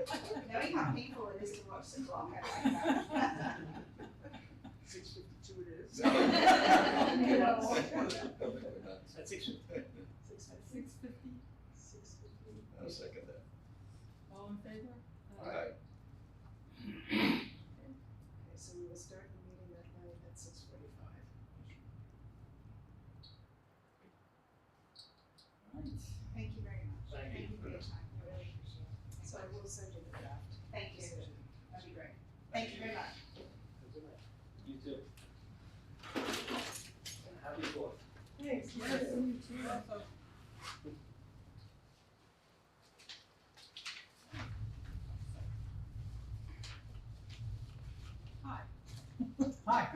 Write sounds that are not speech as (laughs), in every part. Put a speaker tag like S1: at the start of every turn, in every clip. S1: lot of people, it isn't what six o'clock at
S2: Six fifty-two it is. At six fifty.
S1: Six minutes.
S3: Six fifty,
S2: Six fifty.
S4: I'll second that.
S3: all in favor?
S4: Aye.
S2: Okay, so we will start the meeting that night at six forty-five.
S3: Right.
S1: Thank you very much.
S2: Thank you.
S1: for your time, I really appreciate it.
S2: So I will send you the draft.
S1: Thank you,
S2: decision.
S1: that'd be great. Thank you very much.
S5: You too. And happy fourth.
S2: Thanks.
S3: Yes, you too. Hi.
S1: Hi.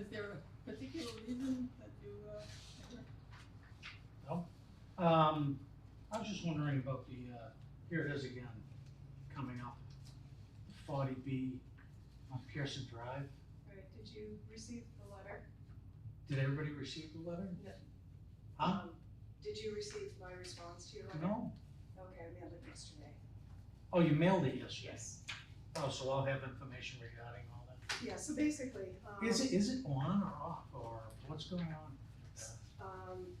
S3: Is there a particular reason that you, uh, ever-
S6: Um, I was just wondering about the, uh, here it is again, coming up, forty B on Pearson Drive.
S2: Alright, did you receive the letter?
S6: Did everybody receive the letter?
S2: No.
S6: Huh?
S2: Um, Did you receive my response to your letter?
S6: No?
S2: Okay, I mailed it yesterday.
S6: Oh, you mailed it yesterday?
S2: Yes.
S6: Oh, so I'll have information regarding all that.
S2: Yeah, so basically, um.
S6: Is it, is it on or off, or what's going on?
S2: Um,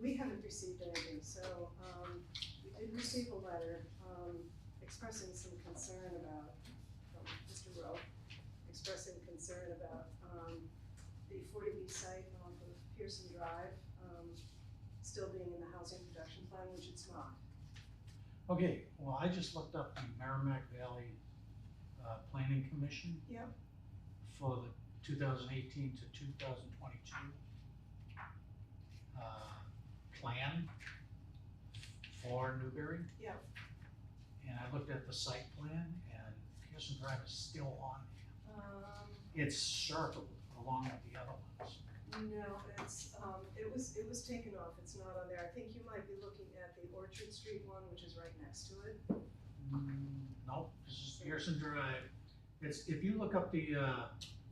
S2: we haven't received anything, so, um, we did receive a letter, um, expressing some concern about, from Mr. Rowe, expressing concern about, um, the forty B site off of Pearson Drive, um, still being in the housing production plan, which it's not.
S6: Okay, well, I just looked up the Merrimack Valley, uh, Planning Commission.
S2: Yep.
S6: For the two thousand eighteen to two thousand twenty-two, uh, plan for Newbury.
S2: Yep.
S6: And I looked at the site plan and Pearson Drive is still on,
S2: Um,
S6: it's circled along with the other ones.
S2: No, it's, um, it was, it was taken off, it's not on there, I think you might be looking at the Orchard Street one, which is right next to it.
S6: Mm, Nope, this is Pearson Drive, it's, if you look up the, uh,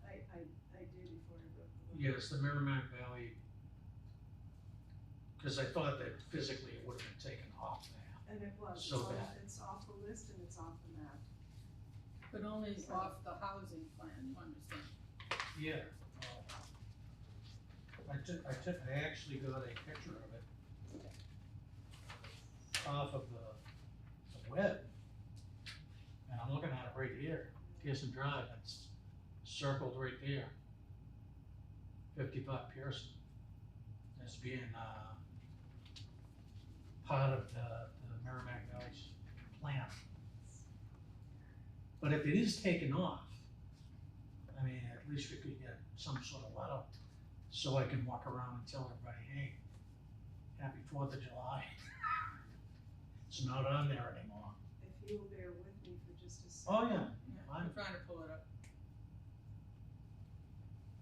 S2: I, I, I did before I wrote the letter.
S6: Yes, the Merrimack Valley. Cause I thought that physically it would have been taken off there.
S2: And it was, it's
S6: So
S2: on,
S6: bad.
S2: it's off the list and it's off the map.
S3: but only off the housing plan, you understand?
S6: Yeah. uh, I took, I took, I actually got a picture of it. Off of the, the web. And I'm looking at it right here, Pearson Drive, it's circled right there. Fifty-five Pearson. That's being, uh, part of the, the Merrimack Valley's plan. But if it is taken off, I mean, at least we could get some sort of letter, so I can walk around and tell everybody, hey, happy Fourth of July. (laughs) It's not on there anymore.
S2: If you will bear with me for just a second.
S6: Oh, yeah,
S3: Yeah, I'm
S6: Fine.
S3: trying to pull it up.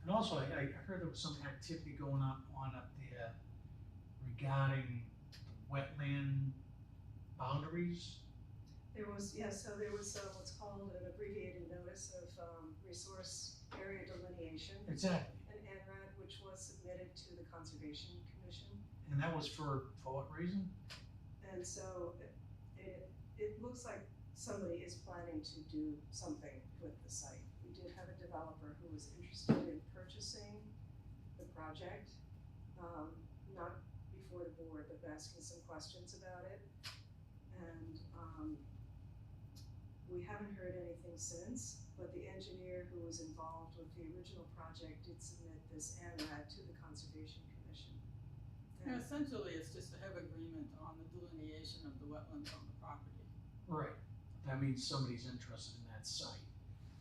S6: and also, I, I heard there was some activity going on, on up there regarding wetland boundaries.
S2: There was, yeah, so there was uh, what's called an abbreviated notice of, um, resource area delineation,
S6: Exactly,
S2: an NRAD, which was submitted to the Conservation Commission.
S6: and that was for, for what reason?
S2: And so it- it, it looks like somebody is planning to do something with the site. We did have a developer who was interested in purchasing the project, um, not before the board, but asking some questions about it. And, um, we haven't heard anything since, but the engineer who was involved with the original project did submit this ANRAD to the Conservation Commission.
S3: Yeah,
S2: And
S3: Essentially, it's just to have agreement on the delineation of the wetlands on the property.
S6: Right. That means someboldys interested in that site,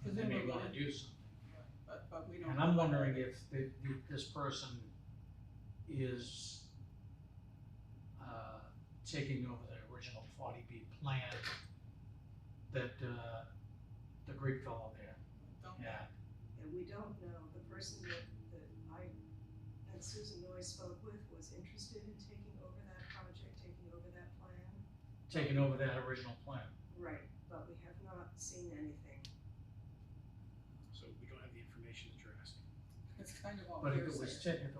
S6: and they may wanna do something.
S3: But, but we don't.
S6: And
S3: know
S6: I'm
S3: what
S6: wondering
S3: that
S6: if the, the, this person is, uh, taking over the original forty B plan that, uh, the Greek fellow there,
S3: is. Don't-
S6: yeah,
S2: And we don't know, the person that, that I, that Susan Noy spoke with was interested in taking over that project, taking over that plan.
S6: taking over that original plan.
S2: Right. But we have not seen anything.
S7: So we don't have the information that you're asking.
S3: It's kind of all
S6: But if
S3: hearsay.
S6: it was, ta- if it